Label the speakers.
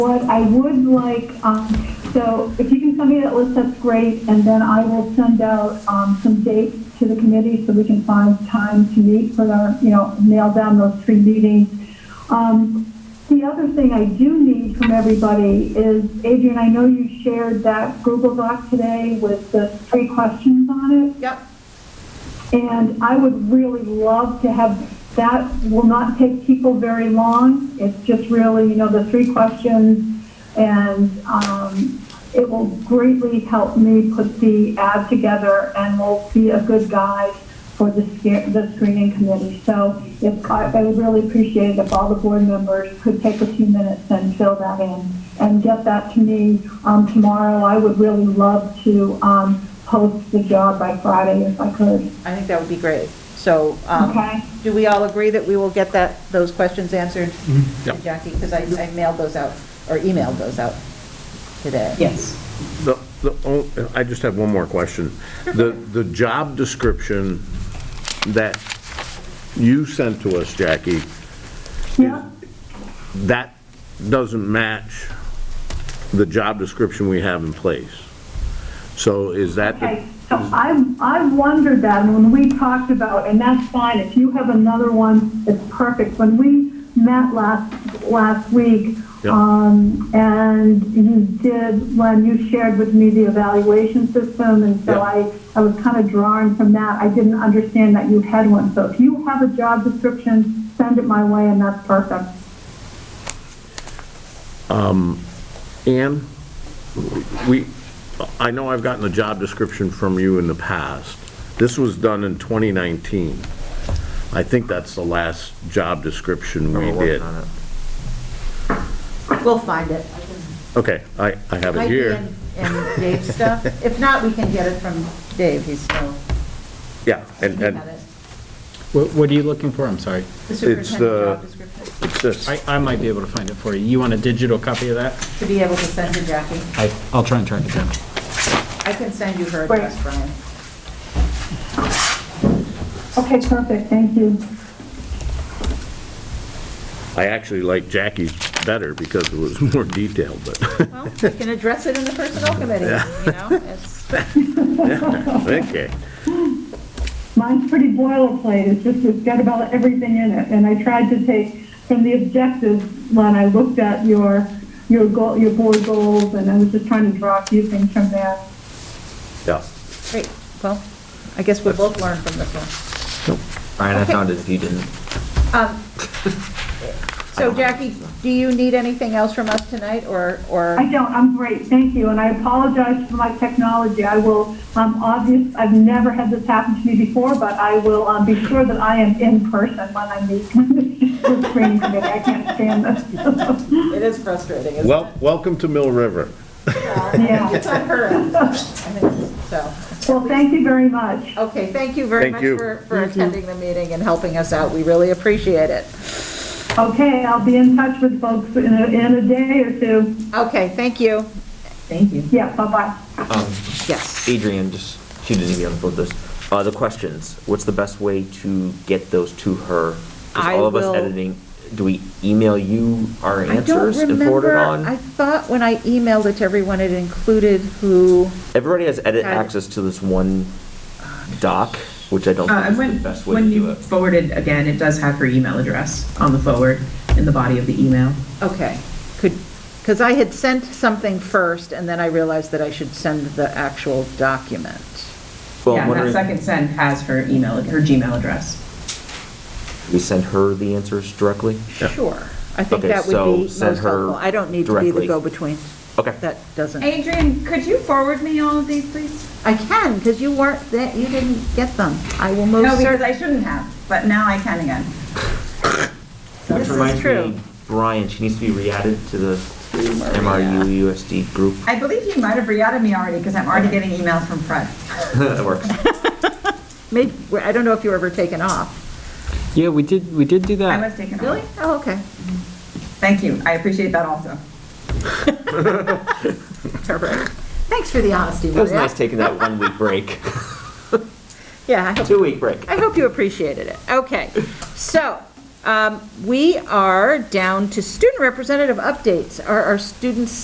Speaker 1: What I would like, um, so if you can send me that list, that's great, and then I will send out, um, some dates to the committee so we can find time to meet for our, you know, nail down those three meetings. Um, the other thing I do need from everybody is, Adrian, I know you shared that Google Doc today with the three questions on it.
Speaker 2: Yep.
Speaker 1: And I would really love to have, that will not take people very long. It's just really, you know, the three questions. And um, it will greatly help me put the ad together and will be a good guide for the sca- the screening committee. So if, I I would really appreciate it if all the board members could take a few minutes and fill that in and get that to me um, tomorrow. I would really love to um, post the job by Friday if I could.
Speaker 2: I think that would be great. So, um,
Speaker 1: Okay.
Speaker 2: do we all agree that we will get that, those questions answered?
Speaker 3: Mm-hmm. Yep.
Speaker 2: Jackie, because I I mailed those out, or emailed those out today.
Speaker 4: Yes.
Speaker 3: The, the, on- I just have one more question. The, the job description that you sent to us, Jackie,
Speaker 1: Yeah.
Speaker 3: that doesn't match the job description we have in place. So is that, the-
Speaker 1: Okay, so I, I wondered that when we talked about, and that's fine, if you have another one, it's perfect. When we met last, last week,
Speaker 3: Yeah.
Speaker 1: um, and you did, when you shared with me the evaluation system, and so
Speaker 3: Yeah.
Speaker 1: I, I was kind of drawn from that. I didn't understand that you had one, so if you have a job description, send it my way, and that's perfect.
Speaker 3: Ann, we, I know I've gotten a job description from you in the past. This was done in 2019. I think that's the last job description we did.
Speaker 2: We'll find it.
Speaker 3: Okay, I, I have
Speaker 2: Might
Speaker 3: it
Speaker 2: be
Speaker 3: here.
Speaker 2: in- in Dave's stuff. If not, we can get it from Dave, he's still,
Speaker 3: Yeah,
Speaker 2: he
Speaker 3: and,
Speaker 2: had
Speaker 3: and
Speaker 2: it.
Speaker 5: What, what are you looking for? I'm sorry.
Speaker 2: The
Speaker 3: the-
Speaker 2: superintendent job description,
Speaker 3: it's this,
Speaker 5: I, I might be able to find it for you. You want a digital copy of that?
Speaker 2: to be able to send to Jackie.
Speaker 5: I, I'll try and track it down.
Speaker 2: I can send you her
Speaker 1: Right.
Speaker 2: address, Brian.
Speaker 1: Okay, perfect, thank you.
Speaker 3: I actually like Jackie's better because it was more detailed, but,
Speaker 2: Well, we can address it in the personnel committee, you know? it's-
Speaker 3: okay.
Speaker 1: Mine's pretty boilerplate, it's just, it's got about everything in it, and I tried to take from the objectives when I looked at your, your goal, your board goals, and I was just trying to draw a few things from there.
Speaker 3: Yeah,
Speaker 2: Great, well, I guess we'll both learn from this one.
Speaker 6: Brian, I found it if you didn't.
Speaker 2: Um, So Jackie, do you need anything else from us tonight, or, or,
Speaker 1: I don't, I'm great, thank you, and I apologize for my technology, I will, um, obvious, I've never had this happen to me before, but I will, um, be sure that I am in person when I meet with the screening committee, I can't stand this.
Speaker 2: it is frustrating, isn't it?
Speaker 3: well, welcome to Mill River.
Speaker 1: Yeah,
Speaker 2: It's on her end. I think So,
Speaker 1: well, thank you very much.
Speaker 2: okay, thank you very
Speaker 3: Thank
Speaker 2: much
Speaker 3: you.
Speaker 2: for, for attending the meeting and helping us out, we really appreciate it.
Speaker 1: Okay, I'll be in touch with folks in a, in a day or two.
Speaker 2: Okay, thank you. Thank you.
Speaker 1: Yeah, bye-bye.
Speaker 2: Yes.
Speaker 6: Adrian, just, she didn't even upload this. Uh, the questions, what's the best way to get those to her? 'Cause
Speaker 2: I
Speaker 6: all of
Speaker 2: will-
Speaker 6: us editing, do we email you our
Speaker 2: I don't
Speaker 6: answers and forward it
Speaker 2: remember, I
Speaker 6: on?
Speaker 2: thought when I emailed it to everyone, it included who,
Speaker 6: Everybody has edit
Speaker 2: I-
Speaker 6: access to this one doc, which I don't
Speaker 7: Uh, and
Speaker 6: think is
Speaker 7: when,
Speaker 6: the best way to
Speaker 7: when
Speaker 6: do
Speaker 7: you
Speaker 6: it.
Speaker 7: forwarded again, it does have her email address on the forward in the body of the email.
Speaker 2: okay, could, because I had sent something first, and then I realized that I should send the actual document.
Speaker 6: Well,
Speaker 7: Yeah,
Speaker 6: I'm
Speaker 7: and that
Speaker 6: wondering,
Speaker 7: second send has her email, her Gmail address.
Speaker 6: we send her the answers directly?
Speaker 2: Sure, I think
Speaker 6: Okay,
Speaker 2: that would
Speaker 6: so
Speaker 2: be most
Speaker 6: send her
Speaker 2: helpful. I don't need to be the
Speaker 6: directly.
Speaker 2: go-between.
Speaker 6: Okay.
Speaker 2: That doesn't.
Speaker 8: Adrian, could you forward me all of these, please?
Speaker 2: I can, because you weren't, there- you didn't get them. I will
Speaker 8: No,
Speaker 2: most
Speaker 8: because
Speaker 2: certainly.
Speaker 8: I shouldn't have, but now I can again.
Speaker 2: This
Speaker 6: Which
Speaker 2: is
Speaker 6: reminds
Speaker 2: true.
Speaker 6: me, Brian, she needs to be re-added to the MRU USD group.
Speaker 8: I believe you might have re-added me already because I'm already getting emails from Fred.
Speaker 6: That works.
Speaker 2: Maybe, I don't know if you were ever taken off.
Speaker 5: Yeah, we did, we did do
Speaker 8: I
Speaker 5: that.
Speaker 8: was taken off.
Speaker 2: Really? Oh, okay.
Speaker 8: Thank you. I appreciate that also.
Speaker 2: All right. Thanks for the honesty,
Speaker 6: It was
Speaker 2: Maria.
Speaker 6: nice taking that one week break,
Speaker 2: Yeah, I hope,
Speaker 6: two week break.
Speaker 2: I hope you appreciated it. Okay. So, Um, We are down to student representative updates. Are our students